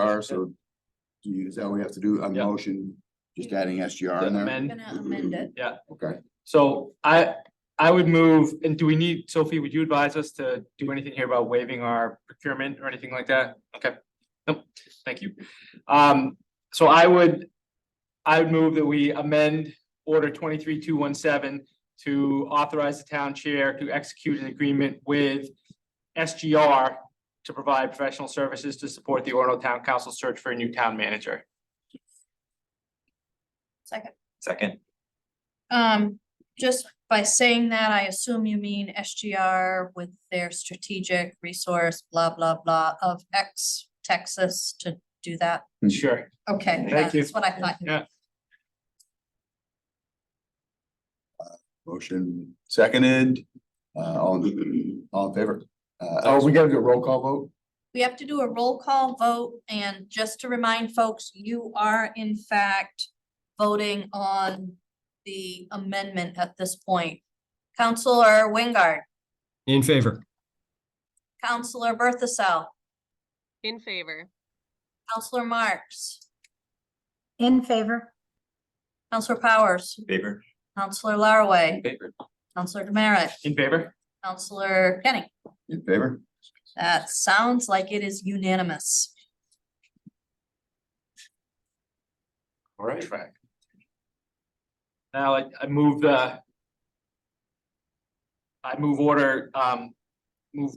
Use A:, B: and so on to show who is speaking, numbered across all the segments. A: are, so. Do you, is that what we have to do, a
B: Yeah.
A: motion, just adding SGR in there?
B: Amend.
C: Gonna amend it.
A: Okay,
B: So I, I would move, and do we need, Sophie, would you advise us to do anything here about waiving our procurement or anything like that? Okay, Nope. thank you. Um, so I would, I would move that we amend order twenty-three two one seven to authorize the town chair to execute an agreement with SGR to provide professional services to support the Orno Town Council search for a new town manager.
C: Second.
D: Second,
C: Um, just by saying that, I assume you mean SGR with their strategic resource, blah, blah, blah, of X Texas to do that.
A: Mhm.
B: Sure.
C: Okay,
B: Thank you.
C: that's what I thought. you-
B: Yeah,
A: motion seconded, uh, all, in- all in favor? Uh, oh, we gotta do a roll call vote?
C: We have to do a roll call vote, and just to remind folks, you are in fact voting on the amendment at this point. Counselor Wingard,
E: In favor.
C: Counselor Berthasell,
F: In favor.
C: Counselor Marks,
G: In favor,
C: Counselor Powers,
D: favor?
C: Counselor Laraway,
D: Favor.
C: Counselor Demerit,
B: in favor?
C: Counselor Kenny.
A: In favor?
C: That sounds like it is unanimous.
B: All right. Now I, I move the. I move order, um, move.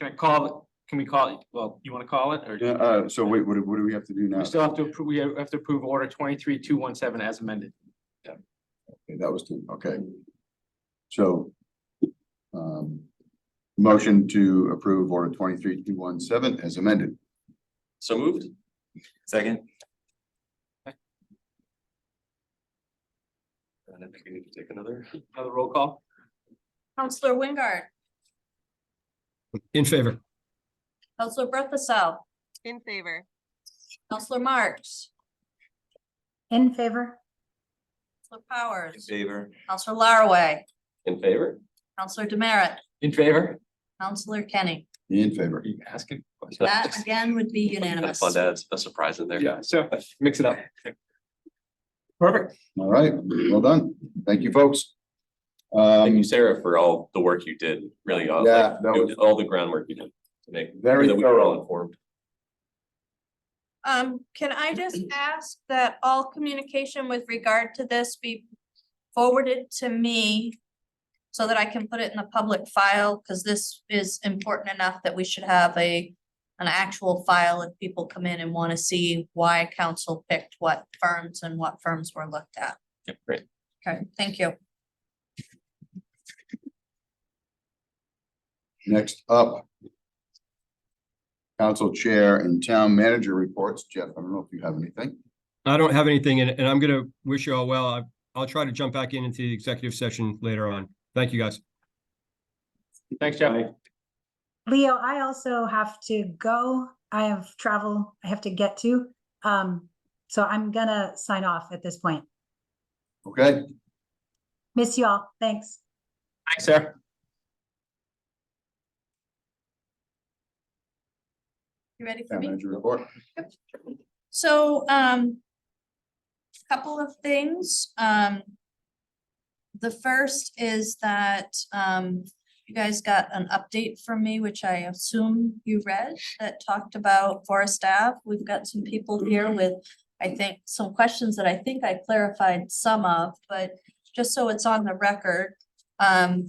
B: Can I call, it? can we call it, well, you wanna call it, or
A: Yeah, uh, so wait, what, do- what do we have to do now?
B: we still have to, appro- we have to approve order twenty-three, two, one, seven as amended?
A: Okay, That was two, okay. So. Um. Motion to approve order twenty-three two one seven as amended.
D: So moved. Second. And I think we need to take another.
B: Another roll call?
C: Counselor Wingard,
E: In favor.
C: Counselor Berthasell,
F: In favor.
C: Counselor Marks,
G: in favor,
C: Counselor Powers,
D: Favor.
C: Counselor Laraway,
D: In favor?
C: Counselor Demerit,
B: In favor?
C: Counselor Kenny.
A: In favor.
B: Are you asking?
C: That again would be unanimous.
D: Fun to add a surprise in there.
B: Yeah, so mix it up. Perfect.
A: All right, well done. Thank you, folks.
D: Thank
A: Um,
D: you, Sarah, for all the work you did, really, all,
A: Yeah, that was-
D: like, all the groundwork you did to make. sure
A: Very
D: that we were
A: thorough.
D: all informed.
C: Um, can I just ask that all communication with regard to this be forwarded to me? So that I can put it in the public file, because this is important enough that we should have a, an actual file if people come in and want to see why council picked what firms and what firms were looked at.
D: Yeah, great.
C: Okay, thank you.
A: next up. Council Chair and Town Manager reports. Jeff, I don't know if you have anything.
E: I don't have anything and, and I'm gonna wish you all well. I, I'll try to jump back in into the executive session later on. Thank you, guys.
B: Thanks, Jeff.
G: Leo, I also have to go. I have travel I have to get to. Um, so I'm gonna sign off at this point.
A: Okay,
G: Miss y'all. Thanks.
B: Thanks, Sarah.
C: You ready for
A: Town
C: me?
A: Manager report.
C: So, um. Couple of things, um. The first is that, um, you guys got an update from me, which I assume you read, that talked about Forest Ave. We've got some people here with, I think, some questions that I think I clarified some of, but just so it's on the record, um.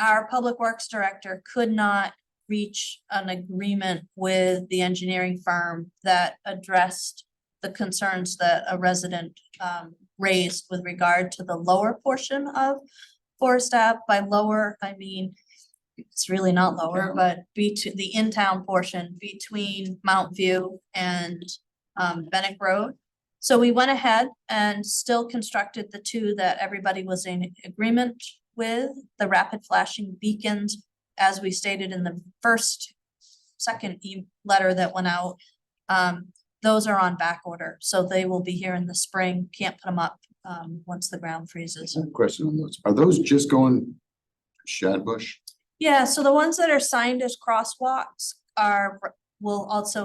C: Our Public Works Director could not reach an agreement with the engineering firm that addressed the concerns that a resident um raised with regard to the lower portion of Forest Ave. By lower, I mean, it's really not lower,
A: Town.
C: but be to the in-town portion between Mount View and um Bennett Road. So we went ahead and still constructed the two that everybody was in agreement with, the rapid flashing beacons as we stated in the first, second e- letter that went out. Um, those are on back order, so they will be here in the spring, can't put them up, um, once the ground freezes.
A: Some question on those. Are those just going Shad Bush?
C: Yeah, so the ones that are signed as crosswalks are, will also